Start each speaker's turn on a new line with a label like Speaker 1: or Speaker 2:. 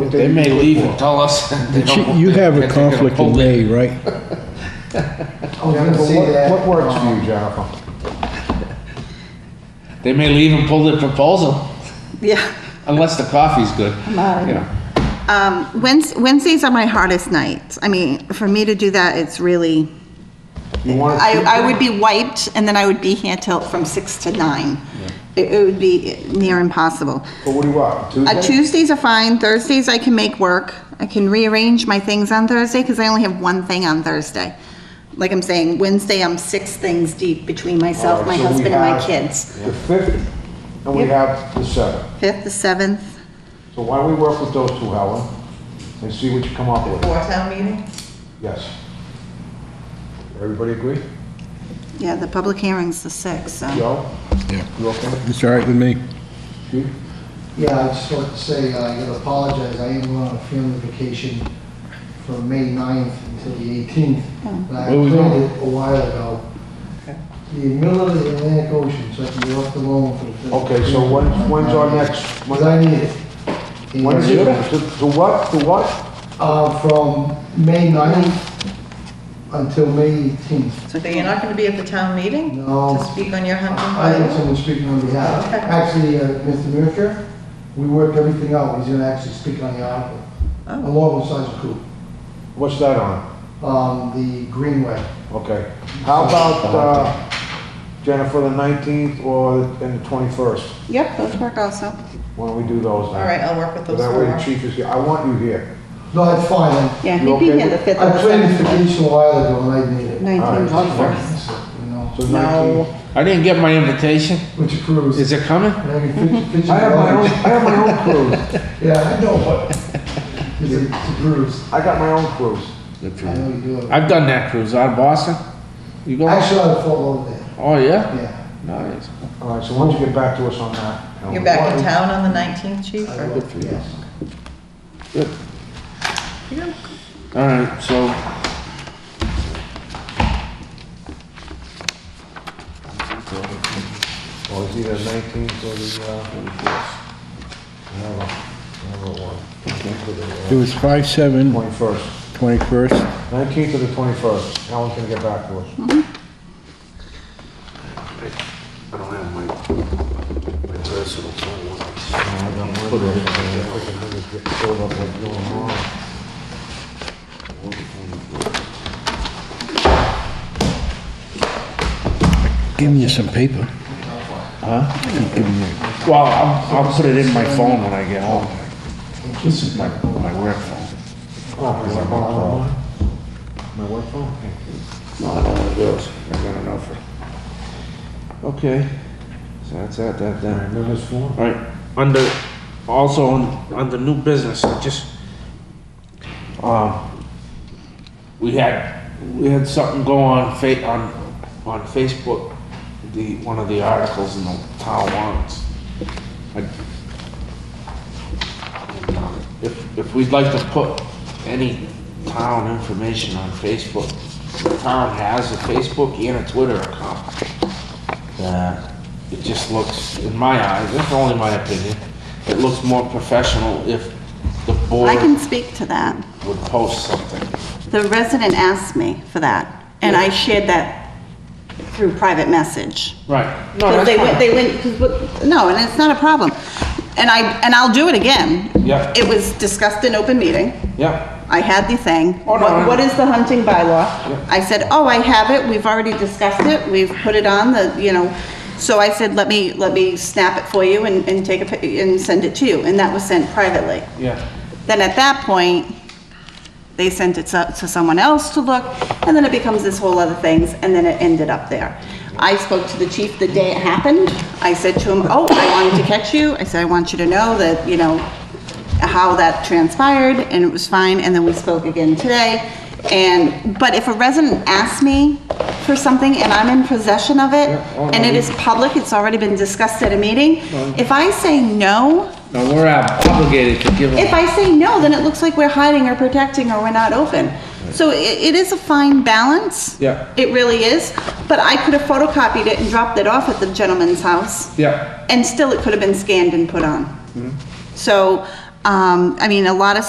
Speaker 1: what they.
Speaker 2: They may
Speaker 1: look
Speaker 2: leave
Speaker 1: for.
Speaker 2: and tell us. they don't
Speaker 3: You
Speaker 2: want
Speaker 3: you
Speaker 2: that,
Speaker 3: have
Speaker 2: that
Speaker 3: a
Speaker 2: they're gonna
Speaker 3: conflict
Speaker 2: pull
Speaker 3: in
Speaker 2: it.
Speaker 3: May, right?
Speaker 1: Yeah,
Speaker 4: gonna
Speaker 1: but
Speaker 4: see
Speaker 1: what-
Speaker 4: that,
Speaker 1: What works for
Speaker 4: um,
Speaker 1: you, Jennifer?
Speaker 2: They may leave and pull their proposal,
Speaker 5: Yeah.
Speaker 2: unless the coffee's good. You know,
Speaker 5: Um, Wednes- Wednesdays are my hardest nights. I mean, for me to do that, it's really,
Speaker 1: You want to
Speaker 5: I,
Speaker 1: keep
Speaker 5: I would be wiped and then I would be here till from six to nine. It, it would be near impossible.
Speaker 1: But what do you want,
Speaker 5: Uh,
Speaker 1: Tuesday?
Speaker 5: Tuesdays are fine, Thursdays I can make work. I can rearrange my things on Thursday because I only have one thing on Thursday. Like I'm saying, Wednesday, I'm six things deep between myself, my
Speaker 1: Oh, So we
Speaker 5: husband and my
Speaker 1: have
Speaker 5: kids.
Speaker 1: The fifth, and we
Speaker 5: Yep.
Speaker 1: have the seventh.
Speaker 5: Fifth, the seventh.
Speaker 1: So why don't we work with those two, Helen, and see what you come up with?
Speaker 4: Before town meeting?
Speaker 1: Yes. Everybody agree?
Speaker 5: Yeah, the public hearing's the sixth, so.
Speaker 1: Joe?
Speaker 3: Yeah.
Speaker 1: You okay?
Speaker 3: It's all right with me.
Speaker 1: Steve?
Speaker 4: Yeah, I just want to say, uh, I gotta apologize, I am going on a family vacation from May 9th until the 18th.
Speaker 6: Oh.
Speaker 4: And I
Speaker 2: Where we
Speaker 4: planned it a while ago. The middle of the Atlantic Ocean, so I can be left alone for the. for the-
Speaker 1: Okay, so when, when's our next,
Speaker 4: Because I need it. And,
Speaker 1: when is it? To to what, to what?
Speaker 4: Uh, from May 9th until May 18th.
Speaker 6: So you're not going to be at the town meeting?
Speaker 5: Um,
Speaker 4: No.
Speaker 6: To speak on your hunting
Speaker 4: I have
Speaker 6: bylaw?
Speaker 4: someone speaking on behalf.
Speaker 6: Okay.
Speaker 4: Actually, uh, Mr. Mercer, we worked everything out, he's gonna actually speak on the article.
Speaker 6: Oh.
Speaker 4: Along with Sergeant Coop,
Speaker 1: What's that on?
Speaker 4: um, the Greenway.
Speaker 1: Okay. How about, uh, Jennifer, the nineteenth or, and the twenty-first?
Speaker 5: Yep, those work also.
Speaker 1: Why don't we do those?
Speaker 6: All right, I'll work with those
Speaker 1: That way the
Speaker 6: four.
Speaker 1: chief is here. I want you here.
Speaker 4: No, that's fine. I-
Speaker 5: Yeah,
Speaker 1: You
Speaker 5: he'd be
Speaker 1: okay
Speaker 5: here the
Speaker 1: with-
Speaker 5: fifth or
Speaker 4: I
Speaker 5: the
Speaker 4: planned this
Speaker 5: seventh.
Speaker 4: vacation a while ago and I need it.
Speaker 1: All right.
Speaker 5: Nineteenth, twenty-first.
Speaker 4: You know,
Speaker 1: So
Speaker 2: No,
Speaker 1: 19th.
Speaker 2: I didn't get my invitation.
Speaker 4: Which accrues.
Speaker 2: Is it coming?
Speaker 4: And I can fit- fit you
Speaker 1: I have my own, I
Speaker 4: guys.
Speaker 1: have my own cruise.
Speaker 4: Yeah, I know, but it's a- it's a cruise.
Speaker 1: I got my own cruise.
Speaker 4: I know you do it.
Speaker 2: I've done that cruise out of Boston. You go?
Speaker 4: Actually, I followed it,
Speaker 2: Oh, yeah?
Speaker 4: yeah.
Speaker 2: Nice.
Speaker 1: All right, so why don't you get back to us on that? and
Speaker 6: You're back in town on the 19th, chief?
Speaker 4: I
Speaker 6: or-
Speaker 4: will, yes.
Speaker 2: All right, so.
Speaker 1: Or Oh, is either nineteenth or the, uh, whatever, whatever
Speaker 3: It
Speaker 1: one.
Speaker 3: was 5/7,
Speaker 1: Twenty-first,
Speaker 3: 21st.
Speaker 1: nineteenth or the twenty-first, Alan's gonna get back to us.
Speaker 6: Mm-hmm.
Speaker 7: I don't have my, my personal phone.
Speaker 3: Giving you some paper. Huh? Keep giving you.
Speaker 2: Well, I'll, I'll put it in my phone when I get home. This is my, my work phone.
Speaker 1: My work phone?
Speaker 2: No, I don't want those. I got enough. Okay, so that's that, that, that.
Speaker 1: Remember this phone?
Speaker 2: All right, under, also on, on the new business, I just, um, we had, we had something go on fa- on, on Facebook, the, one of the articles in the town warrants. I- If, if we'd like to put any town information on Facebook, the town has a Facebook and a Twitter account that it just looks, in my eyes, that's only my opinion, it looks more professional if the
Speaker 5: I can
Speaker 2: board
Speaker 5: speak to that.
Speaker 2: would post something.
Speaker 5: The resident asked me for that, and I shared that through private message.
Speaker 2: Right. No,
Speaker 5: Because
Speaker 2: that's
Speaker 5: they went,
Speaker 2: fine.
Speaker 5: they went, 'cause what- no, and it's not a problem. And I, and I'll do it again.
Speaker 2: Yeah.
Speaker 5: It was discussed in open meeting.
Speaker 2: Yeah,
Speaker 5: I had the thing.
Speaker 2: Oh, no,
Speaker 5: What-
Speaker 2: no.
Speaker 5: What is the hunting bylaw? I said, oh, I have it, we've already discussed it, we've put it on the, you know, so I said, let me, let me snap it for you and, and take a, pic- and send it to you, and that was sent privately.
Speaker 2: yeah.
Speaker 5: Then at that point, they sent it to to someone else to look, and then it becomes this whole other things, and then it ended up there. I spoke to the chief the day it happened. I said to him, oh, I wanted to catch you. I said, I want you to know that, you know, how that transpired, and it was fine, and then we spoke again today. And, but if a resident asks me for something and I'm in possession of it,
Speaker 2: oh, no,
Speaker 5: and it
Speaker 2: we-
Speaker 5: is public, it's already been discussed at a meeting, if I say no,
Speaker 2: No, we're obligated to give
Speaker 5: if
Speaker 2: them,
Speaker 5: I say no, then it looks like we're hiding or protecting or we're not open. So i it is a fine balance.
Speaker 2: Yeah.
Speaker 5: It really is, but I could have photocopied it and dropped it off at the gentleman's house
Speaker 2: yeah,
Speaker 5: and still it could have been scanned and put on. So Um, I mean, a lot of